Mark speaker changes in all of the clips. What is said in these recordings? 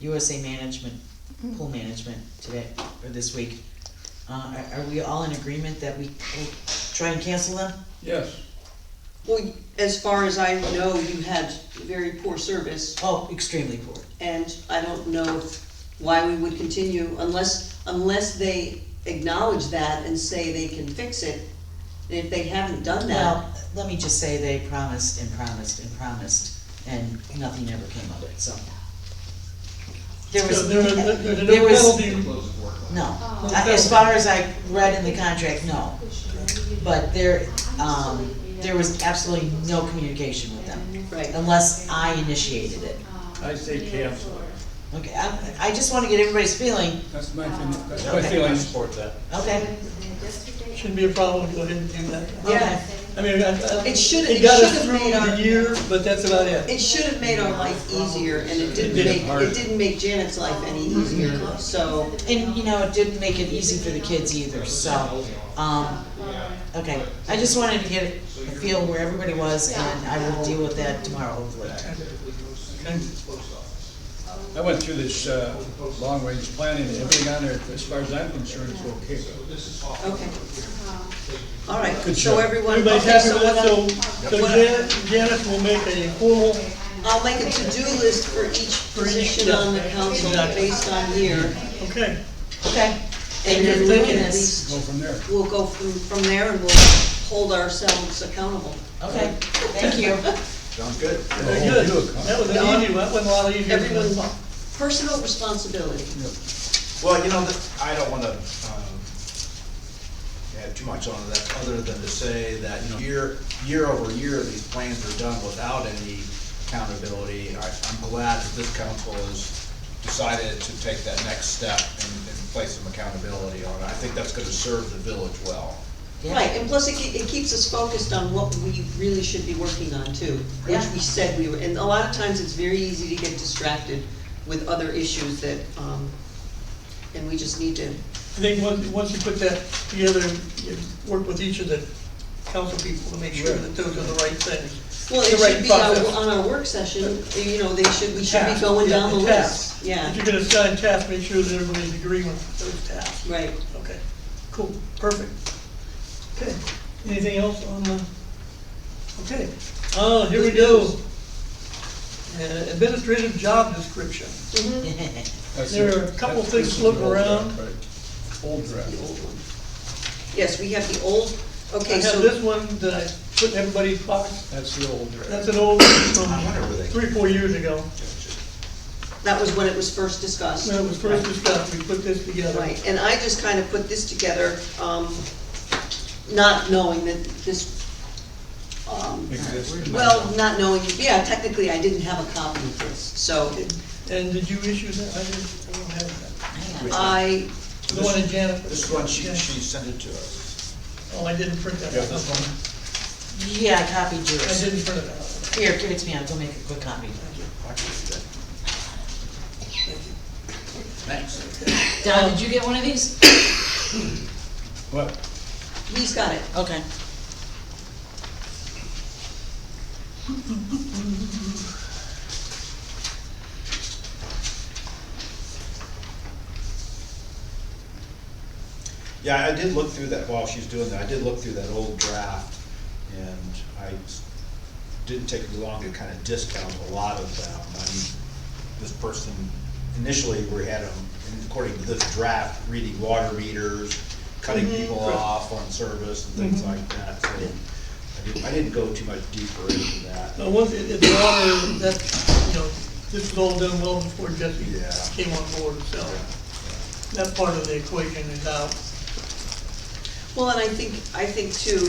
Speaker 1: USA Management, Pool Management today, or this week. Uh, are, are we all in agreement that we will try and cancel them?
Speaker 2: Yes,
Speaker 3: Well, as far as I know, you had very poor service,
Speaker 1: Oh, extremely poor.
Speaker 3: and I don't know why we would continue unless, unless they acknowledge that and say they can fix it. And if they haven't done that,
Speaker 1: Well, let me just say they promised and promised and promised, and nothing ever came of it, so. There was,
Speaker 2: there, there, there's no
Speaker 1: there was,
Speaker 2: penalty.
Speaker 1: no,
Speaker 4: Oh.
Speaker 1: Uh, as far as I read in the contract, no, but there, um, there was absolutely no communication with them,
Speaker 3: right,
Speaker 1: unless I initiated it.
Speaker 2: I say cancel it.
Speaker 1: Okay, I, I just wanna get everybody's feeling,
Speaker 2: That's my feeling, that's my
Speaker 1: Okay.
Speaker 2: feeling.
Speaker 5: Support that.
Speaker 1: okay,
Speaker 6: Shouldn't be a problem, go ahead and do that.
Speaker 1: okay.
Speaker 3: yeah.
Speaker 6: I mean, I, I.
Speaker 3: It should- it
Speaker 6: got
Speaker 3: should
Speaker 6: us
Speaker 3: have
Speaker 6: through
Speaker 3: made our-
Speaker 6: the year, but that's about it.
Speaker 3: It should have made our life easier, and it didn't
Speaker 2: It did
Speaker 3: make,
Speaker 2: hard.
Speaker 3: it didn't make Janet's life any easier, so,
Speaker 1: And, you know, it didn't make it easy for the kids either, so, um, okay. I just wanted to get a feel where everybody was, and I will deal with that tomorrow, hopefully.
Speaker 6: Okay.
Speaker 2: I went through this, uh, long-range planning, and everything on there, as far as I'm concerned, is okay.
Speaker 3: okay. All right,
Speaker 2: Good
Speaker 3: so
Speaker 2: job.
Speaker 3: everyone,
Speaker 6: Everybody's
Speaker 3: okay,
Speaker 6: happy
Speaker 3: so
Speaker 6: with
Speaker 3: what I'm-
Speaker 6: it, so, so Janet, Janet will make a formal,
Speaker 3: I'll make a to-do list for each
Speaker 6: each,
Speaker 3: position
Speaker 6: yeah.
Speaker 3: on the council
Speaker 6: Exactly.
Speaker 3: based on here,
Speaker 6: okay,
Speaker 1: Okay,
Speaker 3: and then
Speaker 6: Thank you.
Speaker 3: we
Speaker 6: Thank you.
Speaker 3: can at least,
Speaker 2: Go from there.
Speaker 3: we'll go from, from there and we'll hold ourselves accountable.
Speaker 1: okay, thank you.
Speaker 5: Sounds good.
Speaker 6: very good.
Speaker 2: Oh, good.
Speaker 6: That was an easy one, that wasn't a lot easier than
Speaker 3: Everyone,
Speaker 6: this one.
Speaker 3: personal responsibility.
Speaker 5: Well, you know, th- I don't wanna, um, add too much on that, other than to say that, you know, year, year over year, these plans are done without any accountability. I, I'm glad that this council has decided to take that next step and, and place some accountability on it. I think that's gonna serve the village well.
Speaker 1: Yeah.
Speaker 3: Right, and plus it, ke- it keeps us focused on what we really should be working on too, which
Speaker 1: Yeah.
Speaker 3: we said we were, and a lot of times it's very easy to get distracted with other issues that, um, and we just need to,
Speaker 6: I think once, once you put that together, you work with each of the council people to make sure that those are the right things.
Speaker 3: well, it
Speaker 6: The right
Speaker 3: should be on,
Speaker 6: process.
Speaker 3: on our work session, you know, they should, we should be
Speaker 6: Tasks,
Speaker 3: going
Speaker 6: yeah,
Speaker 3: down the
Speaker 6: tasks.
Speaker 3: list, yeah,
Speaker 6: If you're gonna assign tasks, make sure that everybody's agreeing with those tasks.
Speaker 3: right.
Speaker 6: Okay, cool, perfect. Okay, anything else on the, okay, oh, here we go. Uh, Administrative job description.
Speaker 3: Mhm.
Speaker 2: That's
Speaker 6: There
Speaker 2: it.
Speaker 6: are a couple
Speaker 2: That's-
Speaker 6: things
Speaker 2: this is
Speaker 6: floating
Speaker 2: old
Speaker 6: around.
Speaker 2: draft, right? Old draft.
Speaker 3: Yes, we have the old,
Speaker 6: I
Speaker 3: okay,
Speaker 6: have
Speaker 3: so,
Speaker 6: this one that I put in everybody's box,
Speaker 2: That's the old draft.
Speaker 6: that's an old one
Speaker 5: I wonder
Speaker 6: from
Speaker 5: where they.
Speaker 6: three, four years ago.
Speaker 3: that was when it was first discussed.
Speaker 6: When it was first discussed, we put this together.
Speaker 3: Right, and I just kind of put this together, um, not knowing that this, um,
Speaker 2: Existed.
Speaker 3: well, not knowing, yeah, technically, I didn't have a copy of this, so
Speaker 6: And did you issue that? I didn't, I don't have that.
Speaker 1: Hang on.
Speaker 3: I,
Speaker 6: The one in Janet.
Speaker 5: This one, she,
Speaker 6: Yeah.
Speaker 5: she sent it to us.
Speaker 6: Oh, I didn't print that
Speaker 5: Yeah,
Speaker 6: out.
Speaker 5: this one.
Speaker 1: Yeah, I copied
Speaker 6: I
Speaker 1: yours.
Speaker 6: didn't print it out.
Speaker 1: Here, give it to me, I'll go make a quick copy.
Speaker 5: I can see that. Thanks.
Speaker 1: Don, did you get one of these?
Speaker 2: What?
Speaker 3: he's got it.
Speaker 1: Okay.
Speaker 5: Yeah, I did look through that, while she's doing that, I did look through that old draft, and I s- didn't take me long to kind of discount a lot of them. I mean, this person, initially, we had them, according to this draft, reading water meters, cutting people off on service and things like that, so I didn't, I didn't go too much deeper into that.
Speaker 6: Now, once it, it's water, that, you know, this was all done well before Jesse
Speaker 5: Yeah.
Speaker 6: came on board, so that part of the equation is out.
Speaker 3: Well, and I think, I think too,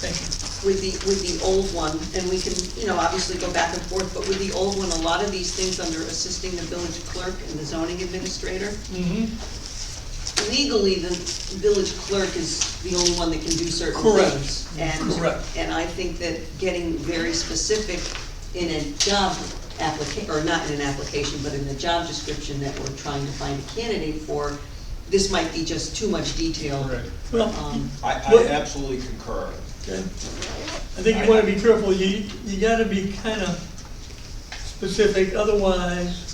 Speaker 6: Thank you.
Speaker 3: with the, with the old one, and we can, you know, obviously go back and forth, but with the old one, a lot of these things under assisting the village clerk and the zoning administrator,
Speaker 6: Mm-hmm.
Speaker 3: legally, the village clerk is the only one that can do certain
Speaker 6: Correct.
Speaker 3: things.
Speaker 6: Correct.
Speaker 3: And, and I think that getting very specific in a job applica, or not in an application, but in the job description that we're trying to find a candidate for, this might be just too much detail.
Speaker 2: Correct.
Speaker 6: Well,
Speaker 3: Um,
Speaker 5: I, I
Speaker 6: Well-
Speaker 5: absolutely concur.
Speaker 6: okay. I think you wanna be careful, you, you gotta be kinda specific, otherwise